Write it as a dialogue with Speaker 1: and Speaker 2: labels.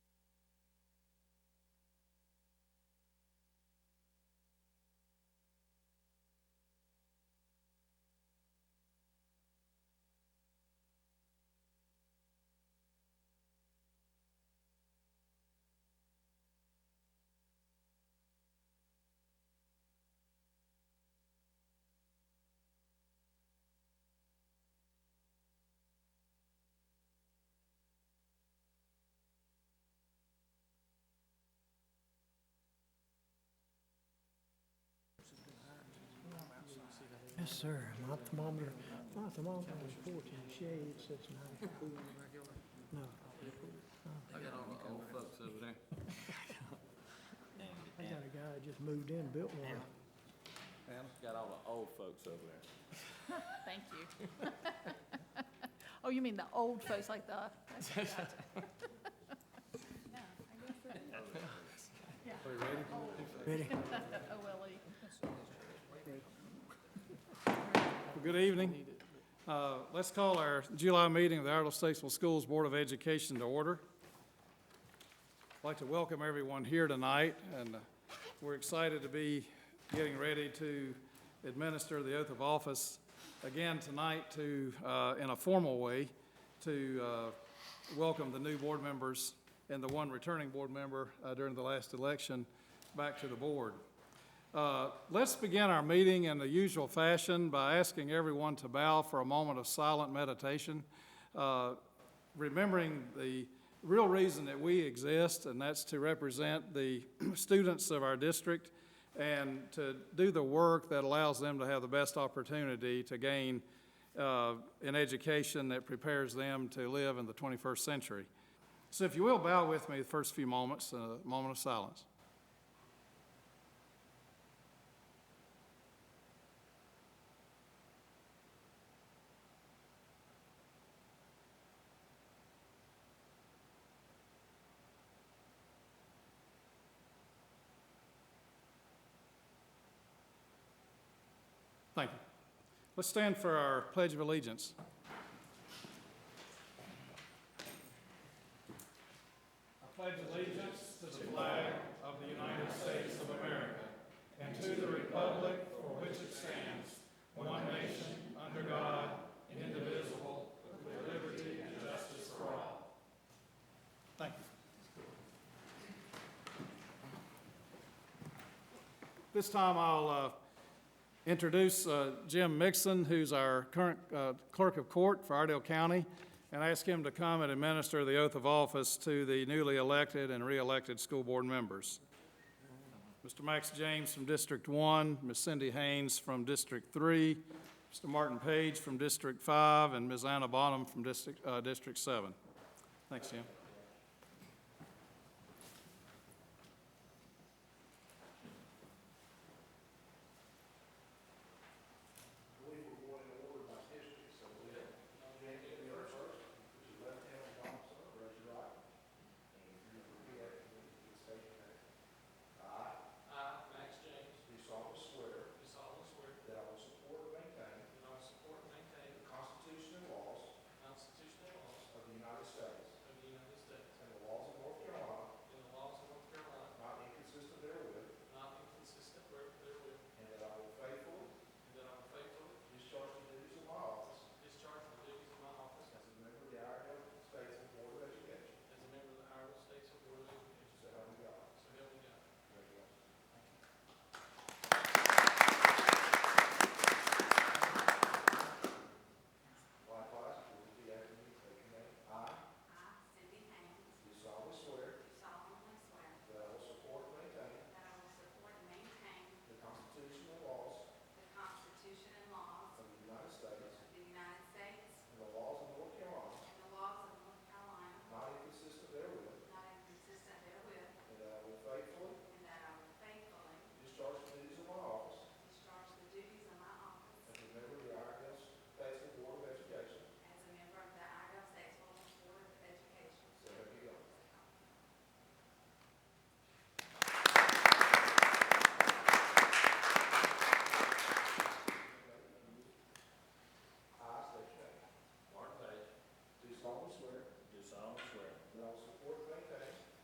Speaker 1: Yes, sir. My thermometer, my thermometer is fourteen shades, it's ninety. No,
Speaker 2: I got all the old folks over there.
Speaker 1: I got a guy that just moved in, built one.
Speaker 2: Got all the old folks over there.
Speaker 3: Thank you. Oh, you mean the old folks like the?
Speaker 1: Ready?
Speaker 3: OLE.
Speaker 4: Well, Good evening. Uh, Let's call our July meeting of the Iredell Statesville Schools Board of Education to order. I'd like to welcome everyone here tonight, and uh, we're excited to be getting ready to administer the oath of office again tonight to, uh, in a formal way, to uh, welcome the new board members and the one returning board member uh, during the last election back to the board. Uh, Let's begin our meeting in the usual fashion by asking everyone to bow for a moment of silent meditation, uh, remembering the real reason that we exist, and that's to represent the students of our district and to do the work that allows them to have the best opportunity to gain uh, an education that prepares them to live in the 21st century. So if you will, bow with me the first few moments, a moment of silence. Thank you. Let's stand for our Pledge of Allegiance. I pledge allegiance to the flag of the United States of America and to the republic for which it stands, one nation, under God, indivisible, with liberty and justice for all. Thank you. This time I'll uh, introduce uh, Jim Mixon, who's our current uh, clerk of court for Ardell County, and ask him to come and administer the oath of office to the newly elected and re-elected school board members. Mr. Max James from District One, Ms. Cindy Haynes from District Three, Mr. Martin Page from District Five, and Ms. Anna Bonham from District, uh, District Seven. Thanks, Jim.